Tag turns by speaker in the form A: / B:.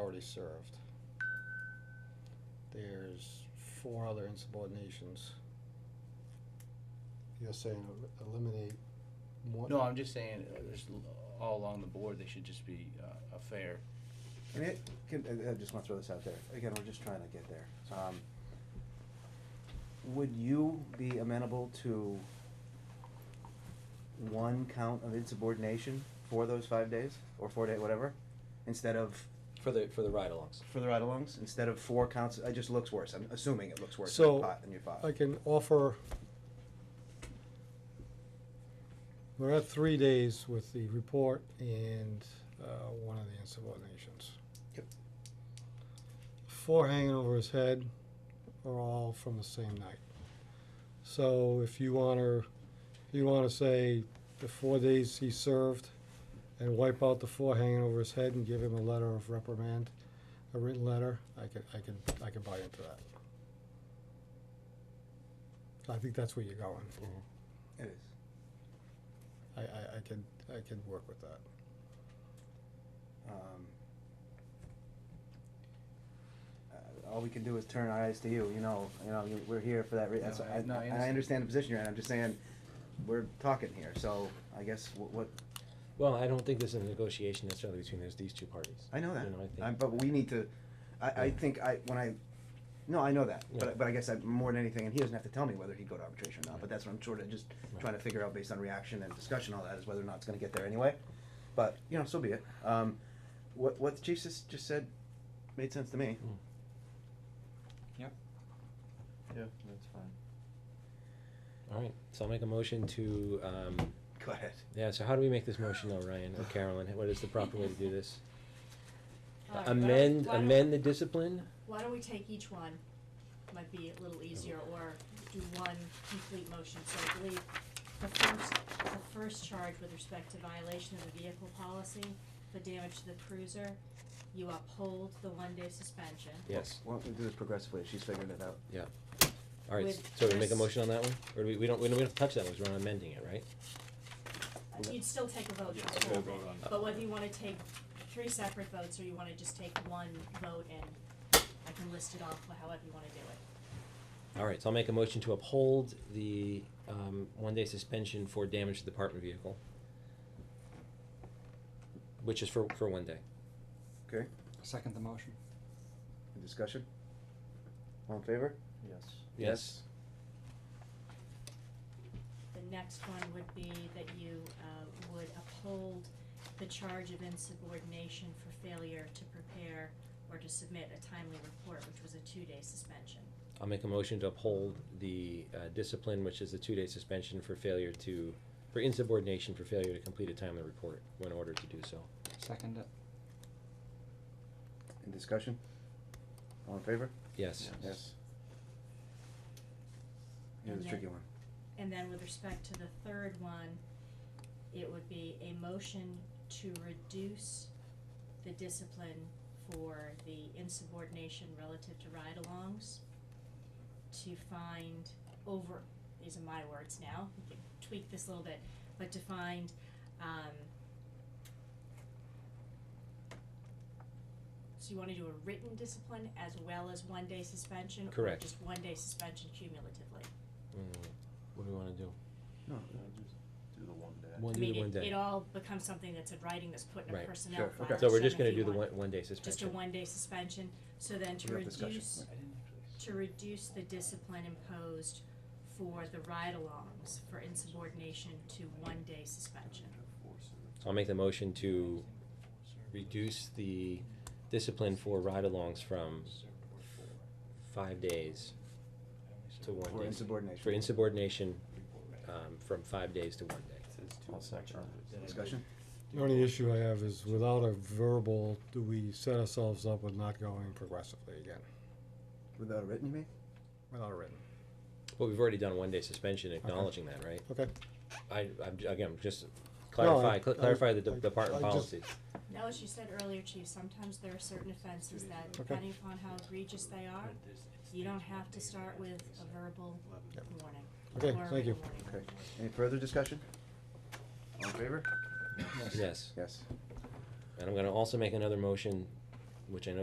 A: already served. There's four other insubordinations. You're saying el- eliminate one?
B: No, I'm just saying, uh, there's l- all along the board, they should just be uh, a fair.
C: I mean, it can, I, I just wanna throw this out there, again, we're just trying to get there, um. Would you be amenable to one count of insubordination for those five days, or four day, whatever? Instead of,
D: For the, for the ride-alongs.
C: for the ride-alongs, instead of four counts, it just looks worse, I'm assuming it looks worse in your
A: So,
C: pot, in your pot.
A: I can offer. We're at three days with the report and, uh, one of the insubordinations.
C: Yep.
A: Four hanging over his head are all from the same night. So if you wanna, if you wanna say the four days he served and wipe out the four hanging over his head and give him a letter of reprimand, a written letter, I could, I could, I could buy into that. I think that's where you're going.
C: It is.
A: I, I, I can, I can work with that.
C: um, uh, all we can do is turn our eyes to you, you know, you know, you- we're here for that reason,
B: No, I-
C: I,
B: no, I
C: I- I
B: understand.
C: understand the position you're in, I'm just saying, we're talking here, so I guess wh- what,
D: Well, I don't think there's a negotiation necessarily between those, these two parties.
C: I know that,
D: You know, I think-
C: I'm- but we need to, I, I
D: Yeah.
C: think I, when I, no, I know that,
D: Yeah.
C: but, but I guess I, more than anything, and he doesn't have to tell me whether he'd go to arbitration or not, but
D: Right.
C: that's what I'm sort of just
D: Right.
C: trying to figure out based on reaction and discussion, all that, is whether or not it's gonna get there anyway, but, you know, so be it, um, what, what the chief just, just said made sense to me.
D: Mm. Hmm.
E: Yeah, that's fine.
D: All right, so I'll make a motion to, um,
C: Go ahead.
D: yeah, so how do we make this motion though, Ryan or Carolyn? What is the proper way to do this?
F: All right, Uh, why don't-
D: Amend,
F: why don't-
D: amend the discipline?
F: Why don't we take each one, might be a little easier, or do one complete motion, so I believe the first, the first charge with respect to violation of the vehicle policy for damage to the cruiser, you uphold the one day suspension.
D: Yes,
C: Why don't we do this progressively? She's figuring it out.
D: yeah. All right,
F: With
D: so we make a
F: Chris-
D: motion on that one? Or do we, we don't, we don't, we don't touch that one, 'cause we're not amending it, right?
F: Uh, You'd still take a vote,
E: Yeah,
F: just
E: we'll
F: vote.
E: vote on it.
F: but whether you wanna take three separate votes, or you wanna just take one vote and I can list it off however you wanna do it.
D: All right, so I'll make a motion to uphold the, um, one-day suspension for damage to the apartment vehicle. Which is for, for one day.
C: Okay,
G: Second the motion.
C: any discussion? All in favor?
E: Yes.
D: Yes.
F: The next one would be that you uh, would uphold the charge of insubordination for failure to prepare or to submit a timely report, which was a two-day suspension.
D: I'll make a motion to uphold the uh, discipline, which is the two-day suspension for failure to, for insubordination for failure to complete a timely report when ordered to do so.
G: Second it.
C: Any discussion? All in favor?
D: Yes.
E: Yeah.
C: Yes. Here's a
F: And
C: tricky
F: then-
C: one.
F: And then with respect to the third one, it would be a motion to reduce the discipline for the insubordination relative to ride-alongs to find over, these are my words now, you can tweak this a little bit, but to find, um, so you wanna do a written discipline as well as one-day suspension? or
D: Correct.
F: Just one-day suspension cumulatively?
D: Mm, What do we wanna do?
C: No,
E: Oh, No, just do the one day.
D: One
F: I
D: day, to
F: mean,
D: one
F: it, it
D: day.
F: all becomes something that's in writing that's put in a
D: Right,
F: personnel
C: sure,
F: file.
C: okay.
D: So we're
F: so
D: just
F: if
D: gonna
F: you
D: do the one,
F: want
D: one-day
F: Just a
D: suspension.
F: one-day suspension, so then to
C: We have discussion.
F: reduce,
B: I didn't actually.
F: to reduce the discipline imposed for the ride-alongs for insubordination to one-day suspension.
D: So I'll make the motion to reduce the discipline for ride-alongs from five days to one day.
C: For insubordination.
D: For insubordination, um, from five days to one day.
E: I'll second that.
C: Discussion?
A: The only issue I have is without a verbal, do we set ourselves up with not going progressively again,
C: Without a written, you mean?
A: without a written?
D: Well, we've already done one day suspension acknowledging that, right?
A: Okay.
D: I, I'm, j- again, just
A: No,
D: clarify,
A: I-
D: cl-
A: I-
D: clarify the de-
A: I-
D: department
A: I just-
D: policies.
F: Now, as you said earlier, Chief, sometimes there are certain offenses that,
A: Okay.
F: depending upon how egregious they are, you don't have to start with a verbal warning.
A: Okay,
F: or a
A: thank you.
F: written warning.
C: Okay. Any further discussion? All in favor?
D: Yes,
C: Yes.
D: and I'm gonna also make another motion, which I know